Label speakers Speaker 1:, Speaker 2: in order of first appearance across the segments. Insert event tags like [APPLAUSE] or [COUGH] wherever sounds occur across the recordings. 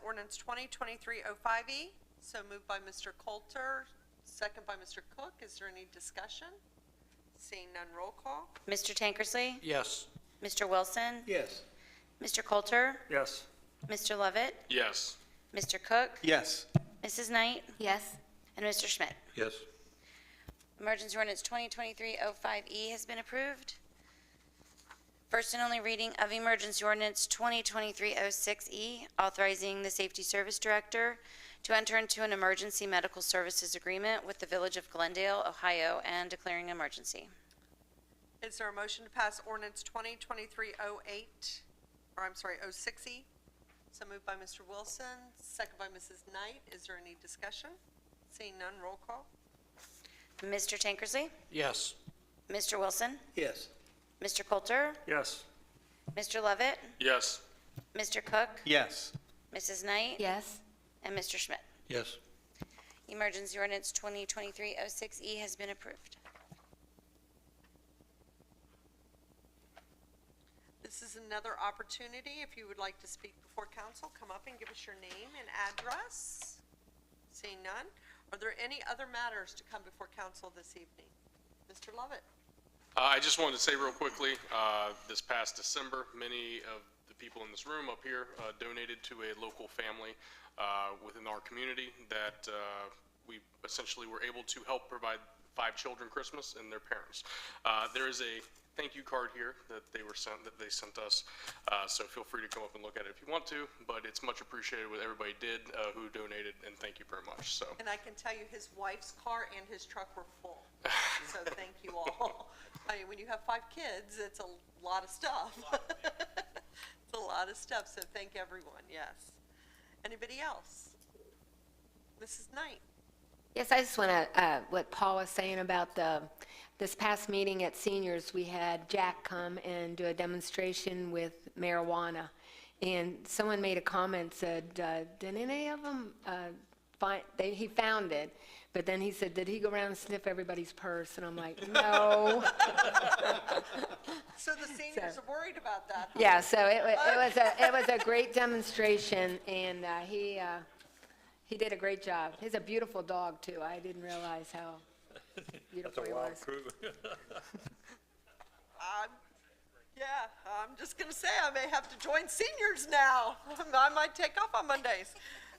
Speaker 1: ordinance 2023-05E. E. So moved by Mr. Coulter, second by Mr. Cook. Is there any discussion? Seeing none, roll call.
Speaker 2: Mr. Tankersley?
Speaker 3: Yes.
Speaker 2: Mr. Wilson?
Speaker 3: Yes.
Speaker 2: Mr. Coulter?
Speaker 3: Yes.
Speaker 2: Mr. Lovett?
Speaker 4: Yes.
Speaker 2: Mr. Cook?
Speaker 3: Yes.
Speaker 2: Mrs. Knight?
Speaker 5: yes,
Speaker 2: And Mr. Schmidt.
Speaker 3: Yes.
Speaker 2: Emergency ordinance 2023-05E E has been approved. First and only reading of emergency ordinance 2023-06E, E, authorizing the Safety Service Director to enter into an emergency medical services agreement with the Village of Glendale, Ohio, and declaring emergency.
Speaker 1: Is there a motion to pass ordinance 2023-08, or I'm sorry, 06E? So moved by Mr. Wilson, second by Mrs. Knight. Is there any discussion? Seeing none, roll call.
Speaker 2: Mr. Tankersley?
Speaker 3: Yes.
Speaker 2: Mr. Wilson?
Speaker 3: Yes.
Speaker 2: Mr. Coulter?
Speaker 3: Yes.
Speaker 2: Mr. Lovett?
Speaker 4: Yes.
Speaker 2: Mr. Cook?
Speaker 3: Yes.
Speaker 2: Mrs. Knight?
Speaker 5: yes,
Speaker 2: And Mr. Schmidt.
Speaker 3: Yes.
Speaker 2: Emergency ordinance 2023-06E E has been approved.
Speaker 1: This is another opportunity, if you would like to speak before council, come up and give us your name and address. Seeing none, are there any other matters to come before council this evening? Mr. Lovett?
Speaker 4: Uh, I just wanted to say real quickly, uh, this past December, many of the people in this room up here uh, donated to a local family uh, within our community that uh, we essentially were able to help provide five children Christmas and their parents. Uh, There is a thank you card here that they were sent, that they sent us, uh, so feel free to come up and look at it if you want to, but it's much appreciated what everybody did uh, who donated, and thank you very much, so.
Speaker 1: And I can tell you his wife's car and his truck were full. [LAUGHS] So thank you all. I mean, when you have five kids, it's a lot of stuff. [LAUGHS] It's a lot of stuff, so thank everyone, yes. Anybody else? Mrs. Knight?
Speaker 5: yes. I just want to, what Paul was saying about the, this past meeting at seniors, we had Jack come and do a demonstration with marijuana. And someone made a comment, said, uh, did any of them find, they, he found it, but then he said, did he go around and sniff everybody's purse? And I'm like, [LAUGHS] no.
Speaker 1: So [LAUGHS] the seniors are worried about that. huh?
Speaker 5: Yeah, so it wa- it was, a it was a great demonstration, and uh, he, uh, he did a great job. He's a beautiful dog, too. I didn't realize how beautiful he was.
Speaker 1: I'm, yeah, I'm just gonna say I may have to join seniors now. [LAUGHS] I might take off on Mondays.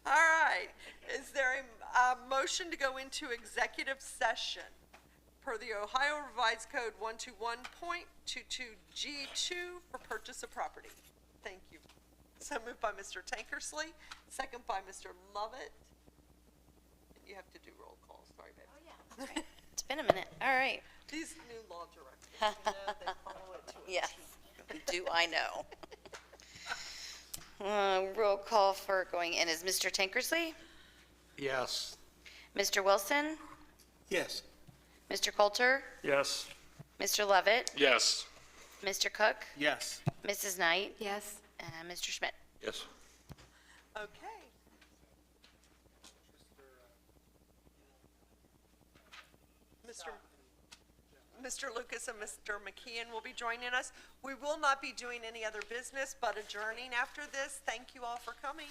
Speaker 1: All right, is there a, a motion to go into executive session? Per the Ohio Revised Code one two one point two two G two for purchase of property. Thank you. So moved by Mr. Tankersley, second by Mr. Lovett. You have to do roll call, sorry, babe.
Speaker 2: It's been a minute. All right.
Speaker 1: These new law directors, you know, they follow it to a
Speaker 2: Yes. [LAUGHS] Do I know? [LAUGHS] Uh, Roll call for going in is Mr. Tankersley,
Speaker 3: Yes.
Speaker 2: Mr. Wilson,
Speaker 3: Yes.
Speaker 2: Mr. Coulter,
Speaker 3: Yes.
Speaker 2: Mr. Lovett,
Speaker 4: Yes.
Speaker 2: Mr. Cook,
Speaker 3: Yes.
Speaker 2: Mrs. Knight,
Speaker 5: Yes.
Speaker 2: and Mr. Schmidt.
Speaker 3: Yes.
Speaker 1: Okay. Mr. Mr. Lucas and Mr. McKeon will be joining us. We will not be doing any other business but adjourning after this. Thank you all for coming.